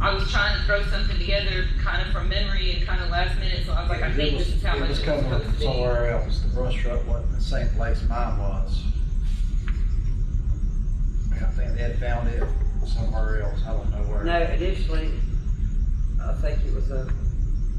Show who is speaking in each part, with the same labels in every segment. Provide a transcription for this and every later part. Speaker 1: I was trying to throw something together kind of from memory and kind of last minute, so I was like, I
Speaker 2: It
Speaker 1: think
Speaker 2: was-
Speaker 1: this is how much
Speaker 2: It was
Speaker 1: it's
Speaker 2: coming
Speaker 1: supposed to
Speaker 2: from
Speaker 1: be.
Speaker 2: somewhere else, the brush truck wasn't the same place mine was. I think they had found it somewhere else, I don't know where.
Speaker 3: No, initially, I think it was a,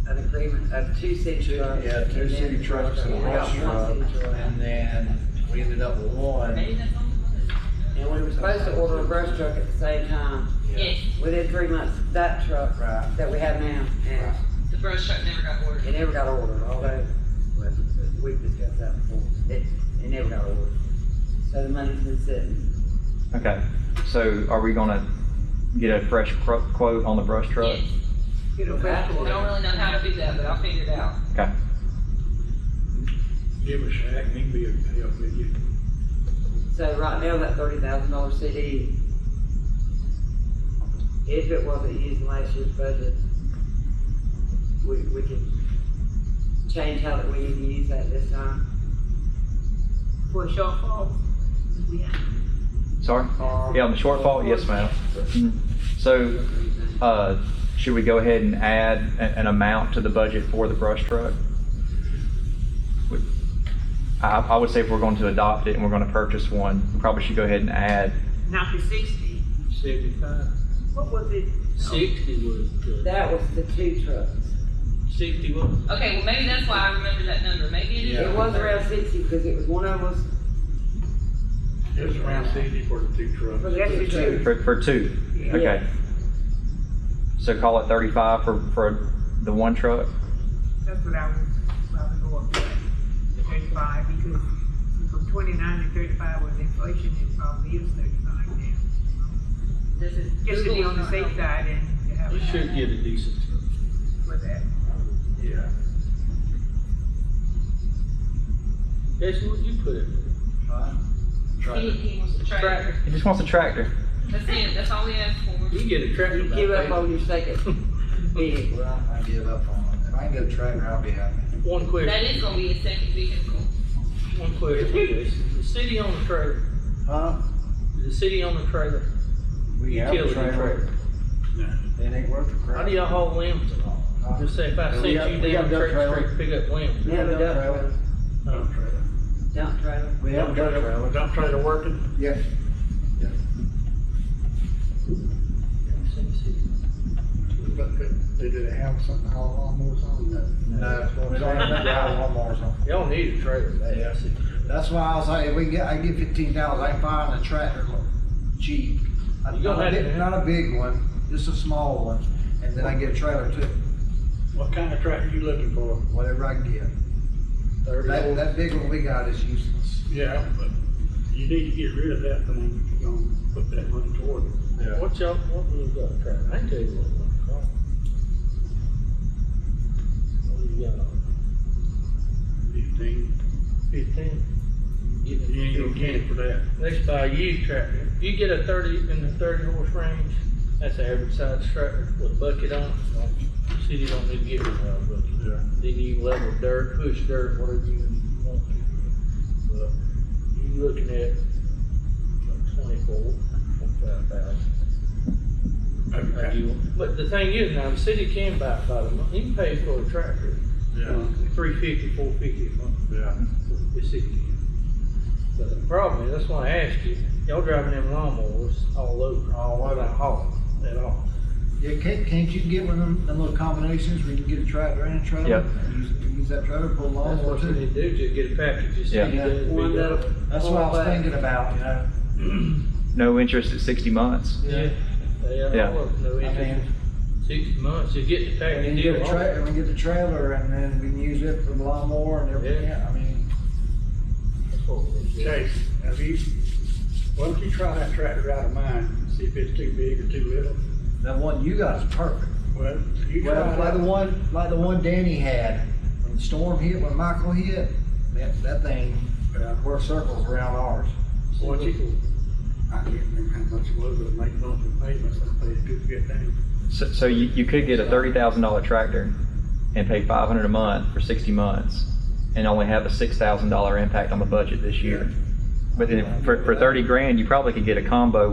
Speaker 3: an agreement of two city trucks.
Speaker 2: Yeah, two
Speaker 3: and then
Speaker 2: city
Speaker 3: the
Speaker 2: trucks and a
Speaker 3: We
Speaker 2: brush
Speaker 3: got
Speaker 2: truck,
Speaker 3: one city truck.
Speaker 2: and then we ended up with one.
Speaker 1: Maybe that's on the list.
Speaker 3: And we were supposed to order a brush truck at the same time,
Speaker 1: Yes,
Speaker 3: within three months, that truck
Speaker 2: Right.
Speaker 3: that we have now, and
Speaker 1: the brush truck never got
Speaker 3: it
Speaker 1: ordered.
Speaker 3: never got ordered, although, well, we've discussed that before, it, it never got ordered. So the money's been sitting,
Speaker 4: Okay, so are we gonna get a fresh cro- quote on the brush truck?
Speaker 1: Yes.
Speaker 3: you know,
Speaker 1: I
Speaker 3: back
Speaker 1: don't really know how to do that, but I'll figure it out.
Speaker 5: Give us that, and he can be able to help with you.
Speaker 3: So right now, that thirty thousand dollar CD, if it wasn't used in last year's budget, we, we could change how that we need to use that this time.
Speaker 6: for shortfalls. We have
Speaker 4: Sorry?
Speaker 3: or-
Speaker 4: Yeah, on the shortfall, yes, ma'am. Mm. So, uh, should we go ahead and add a- an amount to the budget for the brush truck? Would- I, I would say if we're going to adopt it and we're gonna purchase one, we probably should go ahead and add,
Speaker 6: Now for sixty,
Speaker 7: Seventy-five,
Speaker 6: what was it?
Speaker 7: sixty was, the-
Speaker 3: That was the two trucks.
Speaker 7: sixty was,
Speaker 1: Okay, well, maybe that's why I remember that number. Maybe it is.
Speaker 3: It was around sixty, because it was one of us
Speaker 5: It was around sixty for the two trucks.
Speaker 3: for the two trucks.
Speaker 4: for, for two,
Speaker 5: Yeah.
Speaker 4: okay? So call it thirty-five for, for the one truck?
Speaker 6: That's what I was, I was going for, thirty-five, because from twenty-nine to thirty-five was inflation, it probably is thirty-five now.
Speaker 1: This is.
Speaker 6: Just to be on the safe side and to have
Speaker 7: we should
Speaker 6: a,
Speaker 7: get a decent truck.
Speaker 6: for that.
Speaker 5: Yeah.
Speaker 7: Jason, what'd you put it?
Speaker 2: Huh?
Speaker 1: He,
Speaker 2: Tried
Speaker 1: he wants to try it.
Speaker 4: He just wants a tractor.
Speaker 1: That's it. That's all we asked for.
Speaker 7: You get a tractor.
Speaker 3: You
Speaker 7: by
Speaker 3: give up
Speaker 7: then.
Speaker 3: on your second
Speaker 2: to-
Speaker 3: vehicle.
Speaker 2: Well, I give up on it. If I can get a tractor, I'll be happy.
Speaker 7: One
Speaker 1: That
Speaker 7: question,
Speaker 1: is gonna be a second vehicle.
Speaker 7: one question, Jason. The city on the trailer,
Speaker 2: Huh?
Speaker 7: the city on the trailer,
Speaker 2: We have a
Speaker 7: utility
Speaker 2: trailer.
Speaker 7: trailer.
Speaker 2: It ain't worth a crap.
Speaker 7: How do y'all haul limbs and all? Just say if I
Speaker 2: Yeah,
Speaker 7: sent
Speaker 2: we got-
Speaker 7: you
Speaker 2: we got
Speaker 7: down
Speaker 2: a dump
Speaker 7: Church Creek,
Speaker 2: trailer.
Speaker 7: to pick up limbs.
Speaker 2: We have a dump trailer.
Speaker 7: Dump trailer.
Speaker 3: Dump trailer.
Speaker 2: We have a dump trailer.
Speaker 5: Dump trailer working?
Speaker 2: Yeah.
Speaker 5: But they- they did have something to haul lawnmowers on?
Speaker 2: No, we don't have a drive lawnmowers on.
Speaker 7: Y'all need a trailer,
Speaker 2: Yeah.
Speaker 7: that's it.
Speaker 2: That's why I was like, if we get, I get fifteen thousand, I can buy a tractor cheap.
Speaker 7: You don't
Speaker 2: Not a
Speaker 7: have to,
Speaker 2: big,
Speaker 7: man.
Speaker 2: not a big one, just a small one, and then I get a trailer too,
Speaker 5: What kind of tractor you looking for?
Speaker 2: whatever I can get.
Speaker 7: Thirty
Speaker 2: That,
Speaker 7: old-
Speaker 2: that big one we got is useless.
Speaker 5: Yeah, but you need to get rid of that thing if you're gonna put that money toward it.
Speaker 7: What y'all, what we got a trailer? I can tell you what we got. What we got on?
Speaker 5: Fifteen,
Speaker 7: Fifteen. Get
Speaker 5: you ain't gonna get it for that.
Speaker 7: Next buy a used tractor. If you get a thirty, in the thirty horse range, that's an average size tractor with a bucket on it. Like, the City don't need to give you a bucket.
Speaker 5: Yeah.
Speaker 7: Then you level dirt, push dirt, whatever you want to. But you looking at like twenty-four, twenty-five thousand.
Speaker 5: Okay.
Speaker 7: But the thing is now, the city can buy it by the month. You can pay for a tractor,
Speaker 5: Yeah,
Speaker 7: three fifty, four fifty a month.
Speaker 5: yeah.
Speaker 7: Yes, it can. But the problem is, that's why I asked you, y'all driving them lawnmowers all over.
Speaker 2: All over.
Speaker 7: Without hauling at all.
Speaker 2: Yeah, can't, can't you get one of them, them little combinations where you can get a tractor and a trailer?
Speaker 4: Yep.
Speaker 2: and Use, use that trailer, pull a
Speaker 7: That's
Speaker 2: lawnmower
Speaker 7: what you
Speaker 2: too.
Speaker 7: need to do, just get a package, just.
Speaker 4: Yeah.
Speaker 3: One that'll.
Speaker 2: That's what I was thinking about, you know?
Speaker 4: No interest at sixty months.
Speaker 7: Yeah. They
Speaker 4: Yeah.
Speaker 7: are all of no
Speaker 2: I mean,
Speaker 7: interest, six months, you get the
Speaker 2: and
Speaker 7: package
Speaker 2: then get
Speaker 7: deal.
Speaker 2: a trailer, and we get the trailer, and then we can use it for the lawnmower and everything,
Speaker 7: Yeah.
Speaker 2: I mean.
Speaker 5: Chase, have you, why don't you try that tractor out of mine, and see if it's too big or too little?
Speaker 2: That one you got is perfect.
Speaker 5: Well, you try
Speaker 2: Well,
Speaker 5: it
Speaker 2: like the
Speaker 5: out.
Speaker 2: one, like the one Danny had, when the storm hit, when Michael hit, that, that thing
Speaker 5: Yeah.
Speaker 2: worked circles around ours.
Speaker 5: What you, I can't remember how much it was, but it made lots of payments, I paid two good things.
Speaker 4: So, so you, you could get a thirty thousand dollar tractor and pay five hundred a month for sixty months and only have a six thousand dollar impact on the budget this year. But then for, for thirty grand, you probably could get a combo